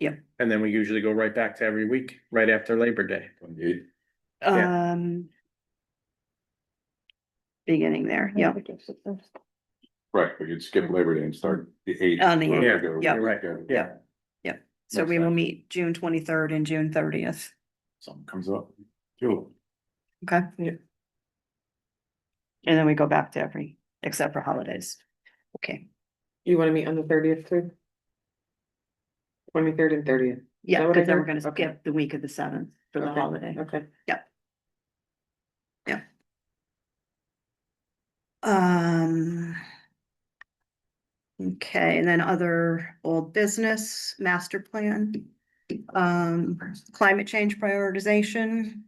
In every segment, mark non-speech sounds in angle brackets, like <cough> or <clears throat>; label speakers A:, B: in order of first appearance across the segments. A: Yep.
B: And then we usually go right back to every week, right after Labor Day. Yeah.
A: Um. Beginning there, yeah.
C: Right, we could skip Labor Day and start the eighth.
A: On the
B: eighth,
C: Go-
A: yeah.
C: go-
B: Right,
C: go.
A: yeah. So
C: Makes
A: we will
C: sense.
A: meet June twenty-third and June thirtieth,
C: Something comes up. Cool.
A: okay? Yeah. And then we go back to every, except for holidays. Okay,
D: You wanna meet on the thirtieth too? Twenty-third and thirtieth,
A: yeah,
D: that what I
A: because then we're
D: heard?
A: gonna
D: Okay.
A: skip the week of the seventh for the
D: Okay.
A: holiday.
D: okay.
A: Um. Okay, and then other old business, master plan, um, climate change prioritization.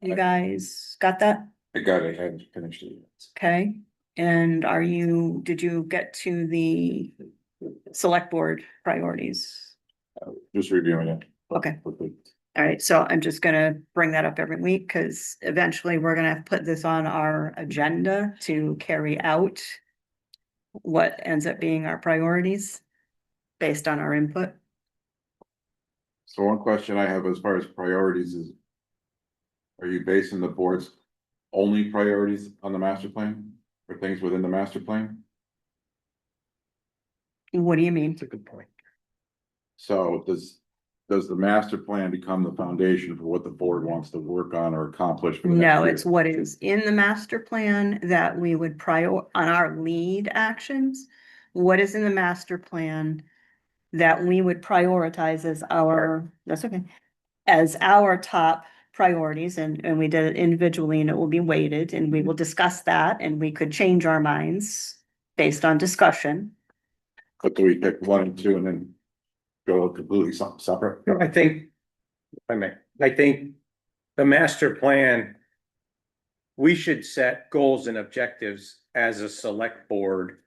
A: You
C: Okay.
A: guys got that?
C: I got it, I hadn't finished it. yet.
A: Okay, and are you, did you get to the select board priorities?
C: Uh, Just reviewing it.
A: Okay.
C: Quickly.
A: All right, so I'm just gonna bring that up every week, because eventually we're gonna have to put this on our agenda to carry out. What ends up being our priorities based on our input.
C: So one question I have as far as priorities is. Are you basing the board's only priorities on the master plan or things within the master plan?
A: What do you mean?
B: That's a good point.
C: So does, does the master plan become the foundation for what the board wants to work on or accomplish? for the next
A: No,
C: year?
A: it's what is in the master plan that we would prior, on our lead actions. What is in the master plan that we would prioritize as our, that's okay, as our top priorities and, and we did it individually and it will be weighted and we will discuss that and we could change our minds based on discussion.
C: But do we pick one and two and then go completely something separate?
B: No, I think, if I may, I think the master plan. We should set goals and objectives as a select board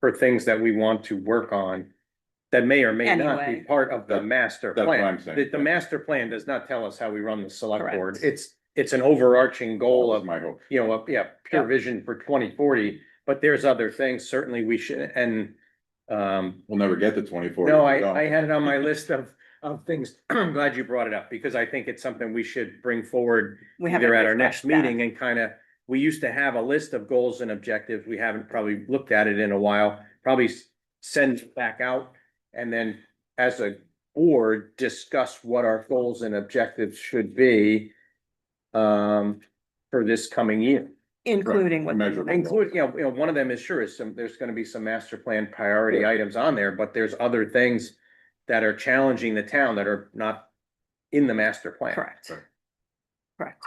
B: for things that we want to work on. That may or may not be
A: Anyway.
B: part of the master
C: That's what
B: plan.
C: I'm saying.
B: The, the master plan does not tell us how we run the select board.
A: Correct.
B: It's, it's an overarching goal
C: That
B: of
C: was my hope.
B: you know, a- yeah, pure vision for twenty forty, but there's other things certainly we should, and um,
C: We'll never get to twenty-four.
B: no,
C: if we don't.
B: I, I had it on my list of, of things. <clears throat> I'm glad you brought it up because I think it's something we should bring forward
A: We haven't
B: either at our next
A: discussed that.
B: meeting and kind of, we used to have a list of goals and objectives. We haven't probably looked at it in a while. Probably s- send it back out and then as a board, discuss what our goals and objectives should be um, for this coming year.
A: Including what.
C: Measurable.
B: Include, you know, you know, one of them is sure is some, there's gonna be some master plan priority items on there, but there's other things that are challenging the town that are not in the master plan.
A: Correct. Correct.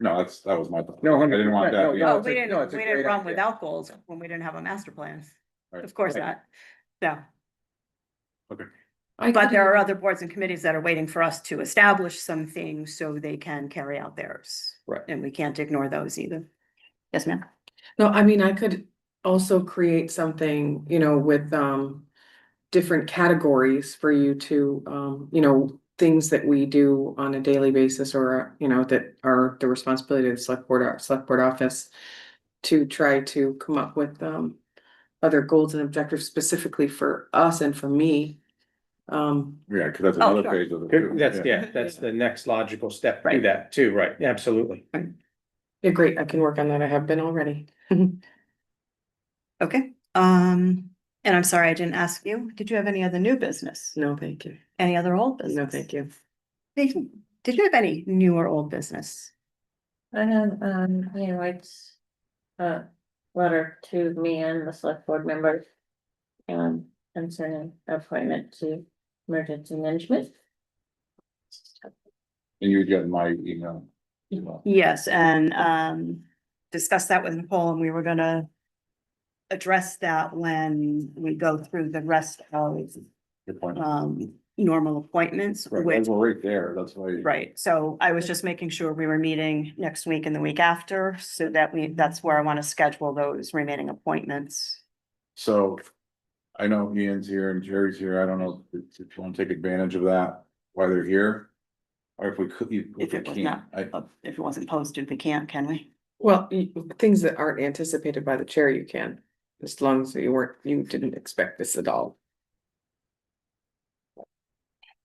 C: No, that's, that was my. thought.
B: No,
C: I
B: hundred
C: didn't want
B: percent. No,
C: that. yeah.
A: Oh,
B: no, it's
A: we
B: a- no,
A: didn't,
B: it's a
A: we didn't
B: great
A: run
B: idea.
A: without goals when we didn't have a master plan.
C: Right.
A: Of course
B: Right.
A: not. No.
D: I
A: But
D: could-
A: there are other boards and committees that are waiting for us to establish some things so they can carry out theirs.
B: Right.
A: And we can't ignore those either. Yes, ma'am.
D: No, I mean, I could also create something, you know, with um different categories for you to um, you know, things that we do on a daily basis or, you know, that are the responsibility of the select board, our select board office to try to come up with um other goals and objectives specifically for us and for me. Um,
C: Yeah, cause that's
A: Oh,
C: another
A: sure.
C: phase of it. too.
B: Good, That's, yeah, that's the next logical step to
A: Right.
B: that too, right? Absolutely.
D: yeah, great, I can work on that. I have been already.
A: Okay, um, and I'm sorry, I didn't ask you. Did you have any other new business?
D: No, thank you.
A: Any other old business?
D: No, thank you.
A: Nathan, Did you have any new or old business?
E: I have, um, you know, it's a letter to me and the select board members. Um, concerning appointment to emergency management.
C: And you get my email. Email.
A: Yes, and um discussed that with Nicole and we were gonna address that when we go through the rest of
C: Good point.
B: Uh,
A: um normal appointments,
C: Right,
A: which,
C: those were right there, that's why.
A: right, so I was just making sure we were meeting next week and the week after, so that we, that's where I wanna schedule those remaining appointments.
C: So I know Ian's here and Jerry's here. I don't know if if you want to take advantage of that while they're here. Or if we could, if
A: If
C: we
A: it was
C: can,
A: not-
C: I,
A: Uh, If it wasn't posted, we can't, can we?
D: Well, y- things that aren't anticipated by the chair, you can, as long as you weren't, you didn't expect this at all.